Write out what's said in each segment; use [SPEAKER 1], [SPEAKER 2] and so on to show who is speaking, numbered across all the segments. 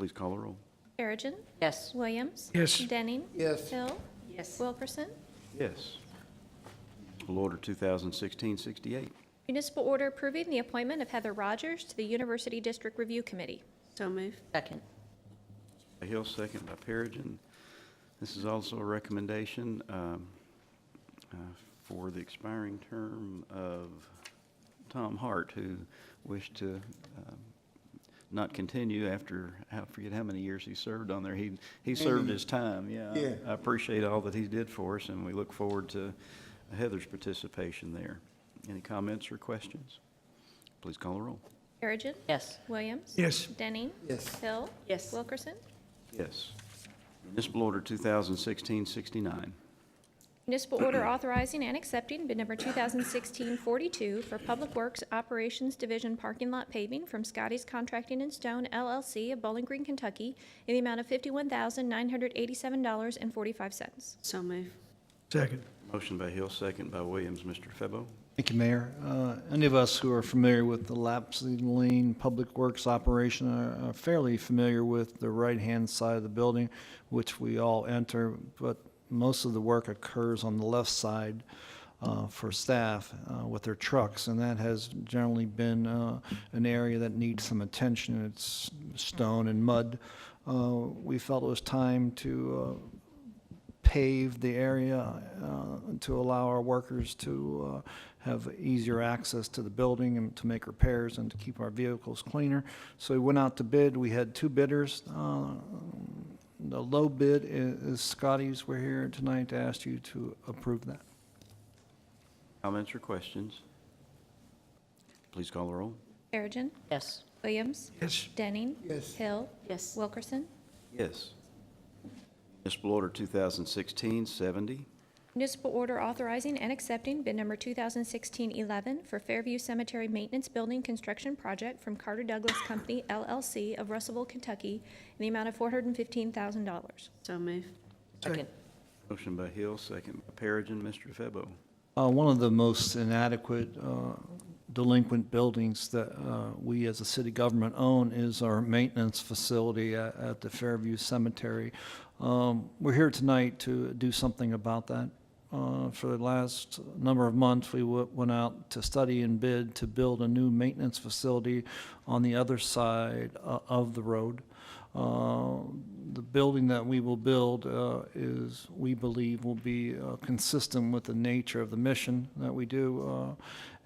[SPEAKER 1] Please call the roll.
[SPEAKER 2] Perigin.
[SPEAKER 3] Yes.
[SPEAKER 2] Williams.
[SPEAKER 4] Yes.
[SPEAKER 2] Denning.
[SPEAKER 4] Yes.
[SPEAKER 2] Hill.
[SPEAKER 3] Yes.
[SPEAKER 2] Wilkerson.
[SPEAKER 1] Yes. Bill Order 2016-68.
[SPEAKER 2] Municipal order approving the appointment of Heather Rogers to the University District Review Committee.
[SPEAKER 3] So move. Second.
[SPEAKER 1] By Hill, second by Perigin. This is also a recommendation um, uh, for the expiring term of Tom Hart, who wished to um, not continue after, I forget how many years he served on there. He, he served his time, yeah. I-
[SPEAKER 4] Yeah.
[SPEAKER 1] I appreciate all that he did for us, and we look forward to Heather's participation there. Any comments or questions? Please call the roll.
[SPEAKER 2] Perigin.
[SPEAKER 3] Yes.
[SPEAKER 2] Williams.
[SPEAKER 4] Yes.
[SPEAKER 2] Denning.
[SPEAKER 4] Yes.
[SPEAKER 2] Hill.
[SPEAKER 3] Yes.
[SPEAKER 2] Wilkerson.
[SPEAKER 1] Yes. Municipal Order 2016-69.
[SPEAKER 2] Municipal order authorizing and accepting bid number 2016-42 for Public Works Operations Division parking lot paving from Scotty's Contracting and Stone LLC of Bowling Green, Kentucky, in the amount of $51,987.45.
[SPEAKER 3] So move.
[SPEAKER 4] Second.
[SPEAKER 1] Motion by Hill, second by Williams. Mr. Febo?
[SPEAKER 5] Thank you, Mayor. Uh, Any of us who are familiar with the lapsing lane public works operation are are fairly familiar with the right-hand side of the building, which we all enter, but most of the work occurs on the left side uh, for staff uh, with their trucks, and that has generally been uh, an area that needs some attention. It's stone and mud. Uh, We felt it was time to uh, pave the area uh, to allow our workers to uh, have easier access to the building and to make repairs and to keep our vehicles cleaner. So we went out to bid. We had two bidders. Uh, The low bid i- is Scotty's. We're here tonight to ask you to approve that.
[SPEAKER 1] Comments or questions? Please call the roll.
[SPEAKER 2] Perigin.
[SPEAKER 3] Yes.
[SPEAKER 2] Williams.
[SPEAKER 4] Yes.
[SPEAKER 2] Denning.
[SPEAKER 4] Yes.
[SPEAKER 2] Hill.
[SPEAKER 3] Yes.
[SPEAKER 2] Wilkerson.
[SPEAKER 1] Yes. Municipal Order 2016-70.
[SPEAKER 2] Municipal order authorizing and accepting bid number 2016-11 for Fairview Cemetery Maintenance Building Construction Project from Carter Douglas Company LLC of Russellville, Kentucky, in the amount of $415,000.
[SPEAKER 3] So move. Second.
[SPEAKER 1] Motion by Hill, second by Perigin. Mr. Febo?
[SPEAKER 5] Uh, One of the most inadequate uh, delinquent buildings that uh, we as a city government own is our maintenance facility a- at the Fairview Cemetery. Um, We're here tonight to do something about that. Uh, For the last number of months, we w- went out to study and bid to build a new maintenance facility on the other side o- of the road. Uh, The building that we will build uh, is, we believe, will be uh, consistent with the nature of the mission that we do, uh,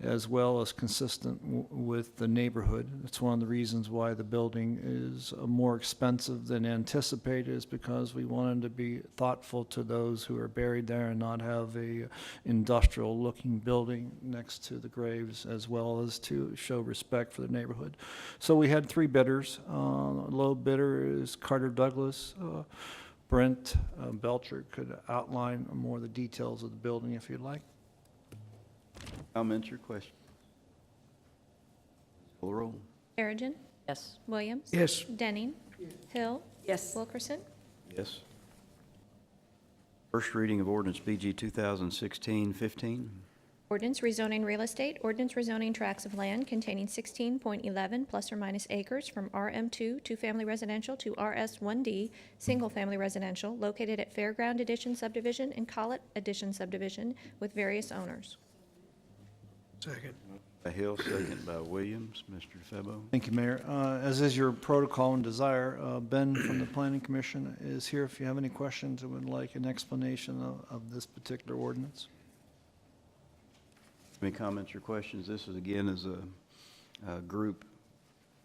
[SPEAKER 5] as well as consistent w- with the neighborhood. It's one of the reasons why the building is uh, more expensive than anticipated, is because we wanted to be thoughtful to those who are buried there and not have a industrial-looking building next to the graves, as well as to show respect for the neighborhood. So we had three bidders. Uh, Low bidder is Carter Douglas. Uh, Brent uh, Belcher could outline more of the details of the building if you'd like.
[SPEAKER 1] Comments or questions? Call the roll.
[SPEAKER 2] Perigin.
[SPEAKER 3] Yes.
[SPEAKER 2] Williams.
[SPEAKER 4] Yes.
[SPEAKER 2] Denning. Hill.
[SPEAKER 3] Yes.
[SPEAKER 2] Wilkerson.
[SPEAKER 1] Yes. First reading of ordinance BG 2016-15.
[SPEAKER 2] Ordinance rezoning real estate, ordinance rezoning tracts of land containing 16.11 plus or minus acres from RM2 two-family residential to RS1D single-family residential located at Fairground Edition subdivision and Collet Edition subdivision with various owners.
[SPEAKER 4] Second.
[SPEAKER 1] By Hill, second by Williams. Mr. Febo?
[SPEAKER 5] Thank you, Mayor. Uh, As is your protocol and desire, uh, Ben from the Planning Commission is here if you have any questions and would like an explanation of- of this particular ordinance.
[SPEAKER 1] Any comments or questions? This is, again, is a, a group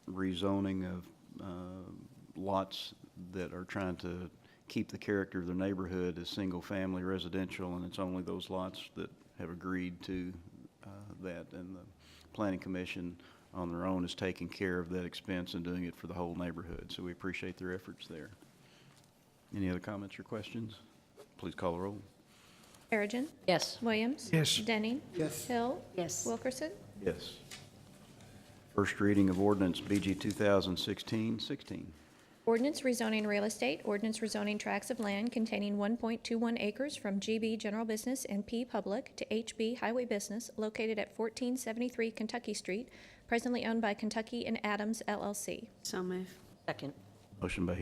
[SPEAKER 1] rezoning of uh, lots that are trying to keep the character of their neighborhood as single-family residential, and it's only those lots that have agreed to uh, that, and the planning commission on their own is taking care of that expense and doing it for the whole neighborhood, so we appreciate their efforts there. Any other comments or questions? Please call the roll.
[SPEAKER 2] Perigin.
[SPEAKER 3] Yes.
[SPEAKER 2] Williams.
[SPEAKER 4] Yes.
[SPEAKER 2] Denning.
[SPEAKER 4] Yes.
[SPEAKER 2] Hill.
[SPEAKER 3] Yes.
[SPEAKER 2] Wilkerson.
[SPEAKER 1] Yes. First reading of ordinance BG 2016-16.
[SPEAKER 2] Ordinance rezoning real estate, ordinance rezoning tracts of land containing 1.21 acres from GB General Business and P Public to HB Highway Business located at 1473 Kentucky Street, presently owned by Kentucky and Adams LLC.
[SPEAKER 3] So move. Second.
[SPEAKER 1] Motion by